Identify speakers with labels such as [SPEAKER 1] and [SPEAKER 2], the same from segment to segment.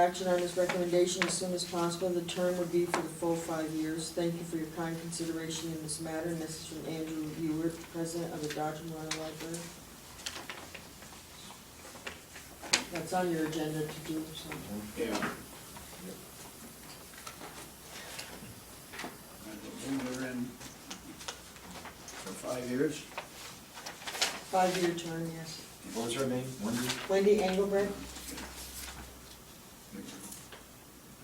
[SPEAKER 1] Action on this recommendation as soon as possible. The term would be for the full five years. Thank you for your kind consideration in this matter. And this is from Andrew Ewert, President of the Dodge and Warren Library. That's on your agenda to do, so.
[SPEAKER 2] Yeah. And we're in for five years.
[SPEAKER 1] Five-year term, yes.
[SPEAKER 3] What was her name? Wendy?
[SPEAKER 1] Wendy Engelbrecht?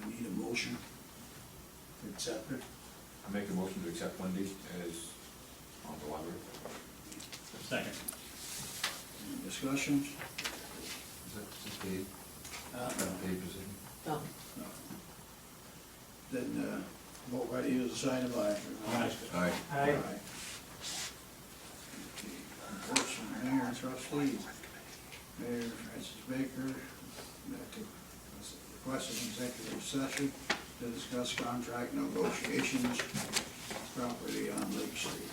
[SPEAKER 2] I need a motion to accept it.
[SPEAKER 3] I make a motion to accept Wendy as on the library.
[SPEAKER 4] Second.
[SPEAKER 2] Any discussions?
[SPEAKER 3] Is that just paid,
[SPEAKER 2] Uh,
[SPEAKER 3] paid position?
[SPEAKER 1] No.
[SPEAKER 2] no. Then, uh, vote by you, sign of aye.
[SPEAKER 3] Aye.
[SPEAKER 2] Aye. Okay, Endorsement, mayor and trustee, Mayor Francis Baker, requested executive session to discuss contract negotiations, property on Lake Street.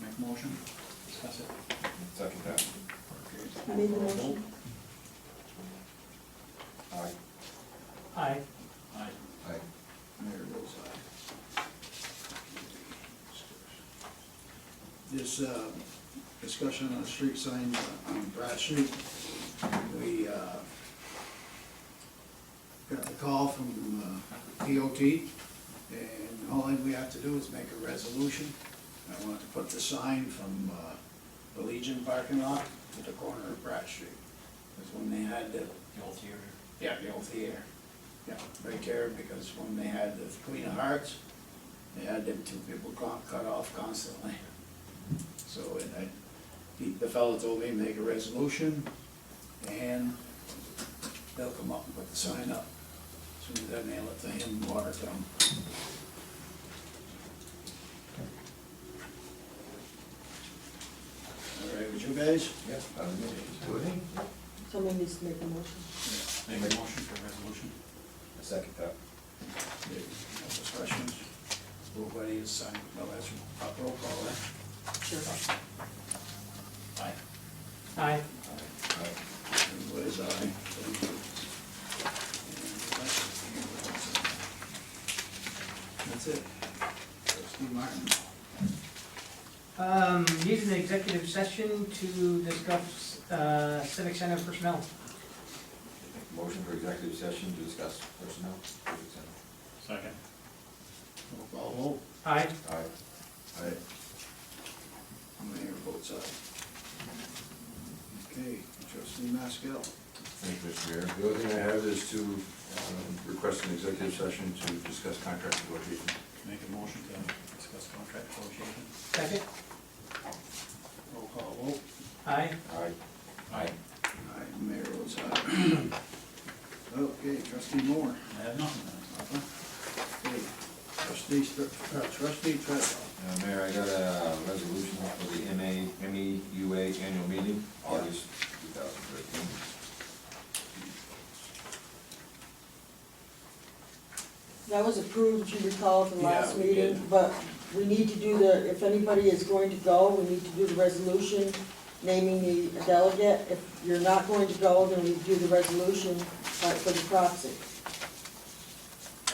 [SPEAKER 2] Make motion? Discuss it.
[SPEAKER 3] Second that.
[SPEAKER 2] Okay.
[SPEAKER 1] Who made the motion?
[SPEAKER 3] Aye.
[SPEAKER 4] Aye. Aye.
[SPEAKER 3] Aye.
[SPEAKER 2] Mayor votes aye. This, uh, discussion on street signs on Brad Street, we, uh, got the call from, uh, DOT, and all we have to do is make a resolution. I want to put the sign from, uh, the Legion parking lot to the corner of Brad Street. That's when they had the
[SPEAKER 4] The old theater.
[SPEAKER 2] yeah, the old theater. Yeah, right there, because when they had the Queen of Hearts, they had them two people co- cut off constantly. So, and I, the- the fellow told me, make a resolution, and they'll come up and put the sign up. Soon as I mail it to him, water them. All right, would you guys?
[SPEAKER 3] Yeah. I was gonna-
[SPEAKER 1] Somebody needs to make a motion.
[SPEAKER 4] Make a motion for resolution.
[SPEAKER 3] I Second that.
[SPEAKER 2] No discussions? Nobody is signed, no, that's a roll call, eh?
[SPEAKER 1] Sure.
[SPEAKER 2] Aye.
[SPEAKER 4] Aye.
[SPEAKER 3] Aye.
[SPEAKER 2] Everybody's aye. Thank you. That's it. Trustee Martin.
[SPEAKER 5] Um, use an executive session to discuss uh, civic center personnel.
[SPEAKER 3] Make a Motion for executive session to discuss personnel.
[SPEAKER 4] Second.
[SPEAKER 2] Roll call vote.
[SPEAKER 5] Aye.
[SPEAKER 3] Aye. Aye.
[SPEAKER 2] Mayor votes aye. Okay, trustee Maskell.
[SPEAKER 3] Thank you, Mr. Mayor. The only thing I have is to um, request an executive session to discuss contract negotiations.
[SPEAKER 4] Make a motion to discuss contract negotiations.
[SPEAKER 5] Second?
[SPEAKER 2] Roll call vote.
[SPEAKER 5] Aye.
[SPEAKER 3] Aye. Aye.
[SPEAKER 2] Aye, mayor votes aye. Okay, trustee Moore.
[SPEAKER 4] I have nothing.
[SPEAKER 2] Papa. Okay, Trustee, Str- uh, trustee Tretton.
[SPEAKER 3] Uh, Mayor, I got a resolution for the MA, MEUA E annual meeting, August two thousand thirteen.
[SPEAKER 1] That was approved, you recall, at the last
[SPEAKER 2] Yeah, we
[SPEAKER 1] meeting,
[SPEAKER 2] did.
[SPEAKER 1] but we need to do the, if anybody is going to go, we need to do the resolution naming the delegate. If you're not going to go, then we do the resolution uh, for the proxy.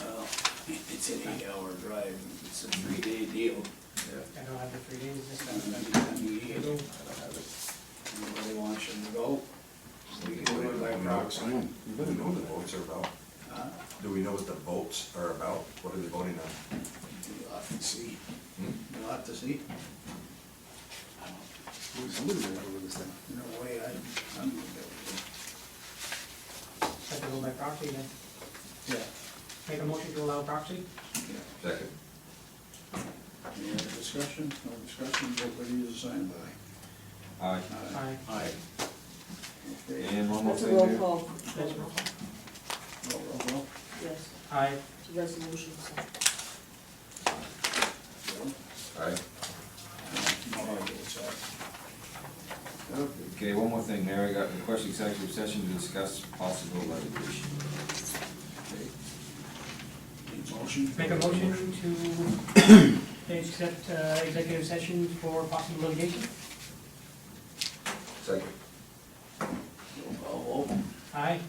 [SPEAKER 2] Well, it's an eight-hour drive, it's a three-day deal.
[SPEAKER 3] Yeah,
[SPEAKER 5] I don't have the three days this time.
[SPEAKER 2] Anybody
[SPEAKER 3] I don't have it.
[SPEAKER 2] wants you to go? We can do it by proxy.
[SPEAKER 3] You better know what the votes are about.
[SPEAKER 2] Huh?
[SPEAKER 3] Do we know what the votes are about? What are they voting on?
[SPEAKER 2] You'll have to see,
[SPEAKER 3] Hmm?
[SPEAKER 2] you'll have to see. No way, I, I'm gonna go.
[SPEAKER 5] Have to go by proxy then.
[SPEAKER 2] Yeah.
[SPEAKER 5] Make a motion to allow proxy?
[SPEAKER 2] Yeah.
[SPEAKER 3] Second.
[SPEAKER 2] Any other discussion? No discussion, everybody is signed by.
[SPEAKER 3] Aye.
[SPEAKER 2] Aye.
[SPEAKER 5] Aye.
[SPEAKER 2] Aye. Okay,
[SPEAKER 3] And one more
[SPEAKER 1] That's a
[SPEAKER 3] thing,
[SPEAKER 1] roll
[SPEAKER 3] Mayor.
[SPEAKER 1] call,
[SPEAKER 5] That's roll.
[SPEAKER 2] roll, roll, roll.
[SPEAKER 1] yes,
[SPEAKER 5] Aye.
[SPEAKER 1] it's a resolution, so.
[SPEAKER 2] Roll.
[SPEAKER 3] Aye.
[SPEAKER 2] Aye, it's aye. Okay.
[SPEAKER 3] Okay, one more thing, Mayor, I got a request executive session to discuss possible litigation.
[SPEAKER 2] Need motion?
[SPEAKER 5] Make a motion to accept uh, executive session for possible litigation?
[SPEAKER 3] Second.
[SPEAKER 2] Roll call vote.
[SPEAKER 5] Aye?